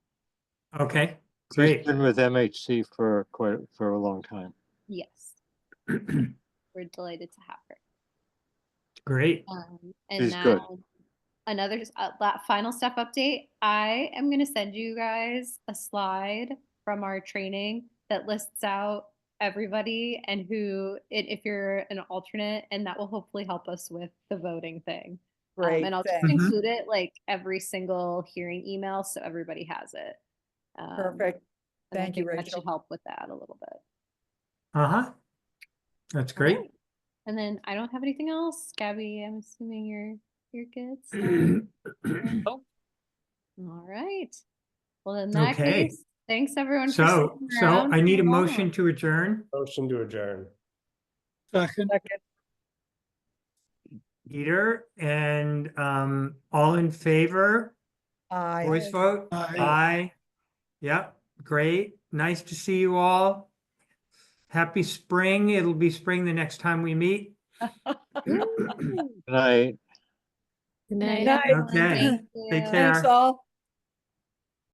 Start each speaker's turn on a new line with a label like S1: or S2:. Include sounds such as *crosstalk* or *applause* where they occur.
S1: Okay,
S2: He's
S1: great.
S2: been with MHC for quite, for a long time.
S3: Yes, we're delighted to have her.
S1: *clears throat* Great.
S3: Um, and
S2: She's
S3: now
S2: good.
S3: another s- uh, la- final step update. I am going to send you guys a slide from our training that lists out everybody and who it, if you're an alternate and that will hopefully help us with the voting thing. Um,
S4: Great.
S3: and I'll
S4: thanks.
S3: just
S2: Mm-hmm.
S1: thanks. Mhm.
S3: include it like every single hearing email so everybody has it. Um,
S4: Perfect.
S3: and I
S4: Thank you,
S3: think That should
S4: Rachel.
S3: help with that a little bit.
S1: Uh-huh. That's great. *clears throat*
S3: Alright. And then I don't have anything else. Gabby, I'm assuming you're you're good.
S1: *clears throat*
S3: so-
S1: So,
S3: All right. Well, in that
S1: Okay.
S3: case, thanks everyone. for sticking
S1: so
S3: around
S1: I need a
S3: for all.
S1: motion to adjourn.
S5: Motion to adjourn.
S4: Second.
S1: Peter, and um, all in favor,
S4: Aye.
S1: voice vote? Aye. Yep, great. Nice to see you all. Happy spring. It'll be spring the next time we meet.
S3: Woo.
S2: And I,
S3: Night,
S4: Night.
S3: everyone.
S1: Okay.
S3: Thank
S1: Take
S3: you.
S1: care.
S4: Thanks all.